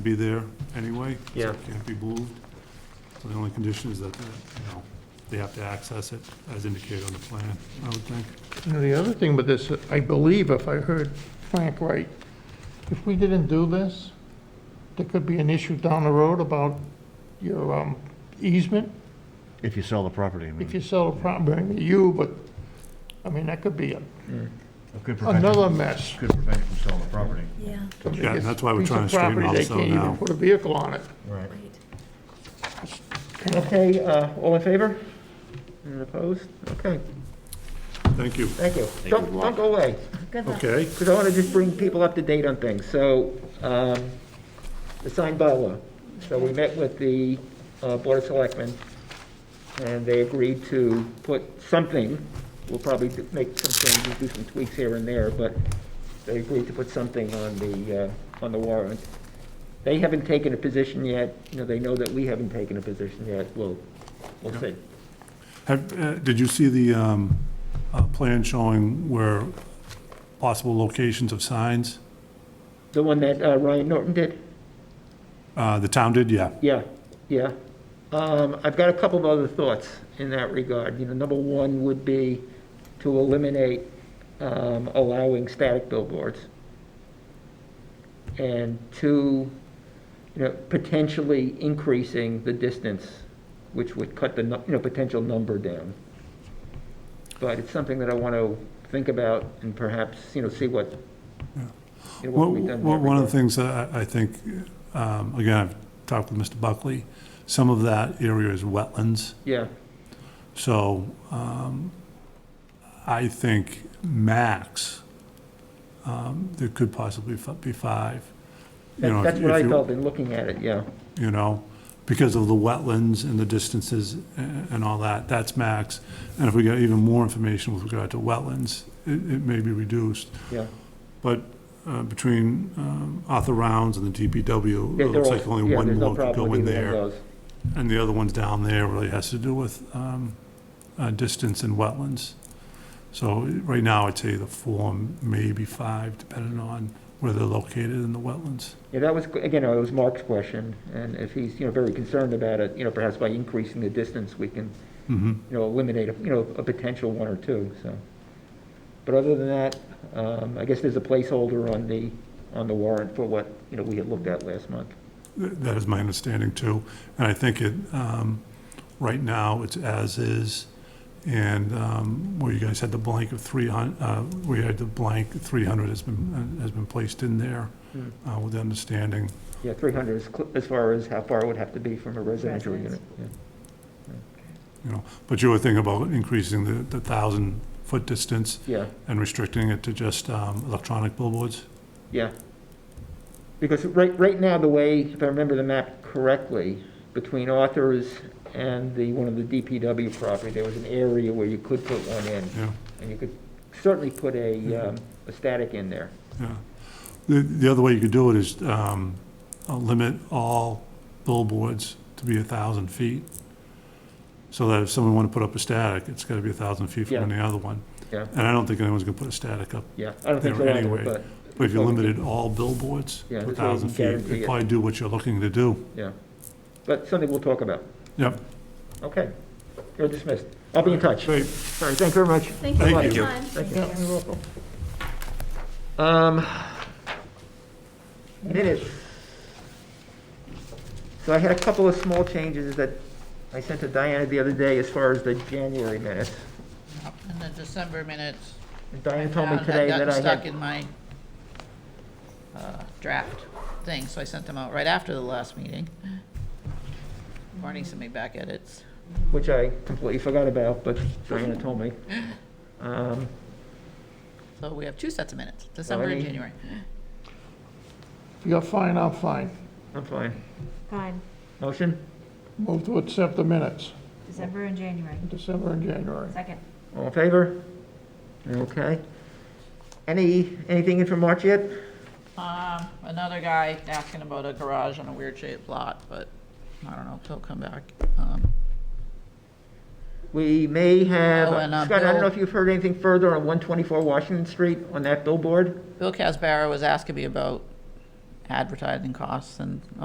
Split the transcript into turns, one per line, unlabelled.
be there anyway. so
Yeah.
it Can't be moved. So the only condition is that, uh, you know, they have to access it as indicated on the plan, I would think.
You know, the other thing with this, I believe if I heard Frank right, if we didn't do this, there could be an issue down the road about your um, easement,
If you sell the property, I mean.
if you sell the property, to you, but, I mean, that could be a-
Could prevent, it-
another mess.
could prevent you from selling the property.
Yeah,
Yeah, and that's why we're
Piece of
trying to straighten
property,
this out
They can't
now.
even put a vehicle on it.
Right.
right.
Okay, uh, all in favor? And opposed? Okay,
Thank you.
thank you. Don't, don't go away,
Good luck.
Okay,
because I want to just bring people up to date on things. So, um, the signed bylaw. So we met with the uh, Board of Selectmen, and they agreed to put something, we'll probably do- make some changes, do some tweaks here and there, but they agreed to put something on the, uh, on the warrant. They haven't taken a position yet, you know, they know that we haven't taken a position yet, we'll, we'll see.
have, uh, did you see the, um, uh, plan showing where possible locations of signs?
The one that uh, Ryan Norton did?
Uh, the town did, yeah.
Yeah, yeah. Um, I've got a couple of other thoughts in that regard. You know, number one would be to eliminate um, allowing static billboards. And two, you know, potentially increasing the distance, which would cut the, nu- you know, potential number down. But it's something that I want to think about and perhaps, you know, see what, you
Well,
know, what we've done. in that
well, One of the
regard.
things that I I think, um, again, I've talked with Mr. Buckley, some of that area is wetlands.
Yeah,
So um, I think max, um, there could possibly fi- be five. You know,
That-
if-
that's what
if
I
you-
felt in looking at it, yeah.
You know, because of the wetlands and the distances a- and all that, that's max. And if we get even more information with regard to wetlands, it it may be reduced.
Yeah.
But uh, between um, Arthur Rounds and the DPW,
Yeah,
it
they're
looks
all-
like only
yeah,
one
there's no
more could
problem
go
with
in
either one of
there.
those.
And the other one's down there really has to do with um, uh, distance and wetlands. So right now, I'd say the four, maybe five, depending on where they're located in the wetlands.
Yeah, that was, again, it was Mark's question, and if he's, you know, very concerned about it, you know, perhaps by increasing the distance, we can,
Mhm.
you know, eliminate, a- you know, a potential one or two, so. But other than that, um, I guess there's a placeholder on the, on the warrant for what, you know, we had looked at last month.
Th- That is my understanding too. And I think it, um, right now, it's as is. And um, where you guys had the blank of 300, we had the blank 300 has been, uh, has been placed in there uh, with the understanding
Yeah, 300 is cl- as far as how far it would have to be from a residential unit.
Residence.
yeah.
You know, but you were thinking about increasing the, the thousand foot distance
Yeah.
and restricting it to just, um, electronic billboards?
Yeah. Because right, right now, the way, if I remember the map correctly, between Arthur's and the, one of the DPW property, there was an area where you could put one in,
Yeah,
and you could certainly put
Hmm.
a, um, a static in there.
yeah. The, the other way you could do it is, um, uh, limit all billboards to be a thousand feet. So that if someone wanted to put up a static, it's gotta be a thousand feet
Yeah.
from any other one.
Yeah.
And I don't think anyone's gonna put a static up.
Yeah, I don't think so
There
either,
anyway.
but,
But if you limited all billboards
Yeah,
to a
this way you
thousand
can
feet,
guarantee
it'd
it.
probably do what you're looking to do.
yeah. But something we'll talk about.
Yep.
Okay. You're dismissed. I'll be in touch.
Great.
Sorry, thank you very much.
Thank you
Thank
for your
you.
time.
Thank
Yeah, you're welcome.
Um, minutes. So I had a couple of small changes that I sent to Diana the other day as far as the January minutes.
In the December minutes.
And Diana told me
found had
today
gotten
that I
Stuck
had,
in my uh, draft thing, so I sent them out right after the last meeting. Marnie sent me back edits.
which I completely forgot about, but Diana told me. Um,
So we have two sets of minutes, December and
Alrighty.
January.
You're fine, I'm fine.
I'm fine.
Fine,
Motion?
Move to accept the minutes,
December and January.
December and January.
Second.
All in favor? Okay. Any, anything in for March yet?
Um, another guy asking about a garage on a weird shaped lot, but I don't know, if he'll come back. Um,
We may have,
Oh, and, uh,
Scott, I don't know
Bill-
if you've heard anything further on 124 Washington Street on that billboard?
Bill Casbarra was asking me about advertising costs and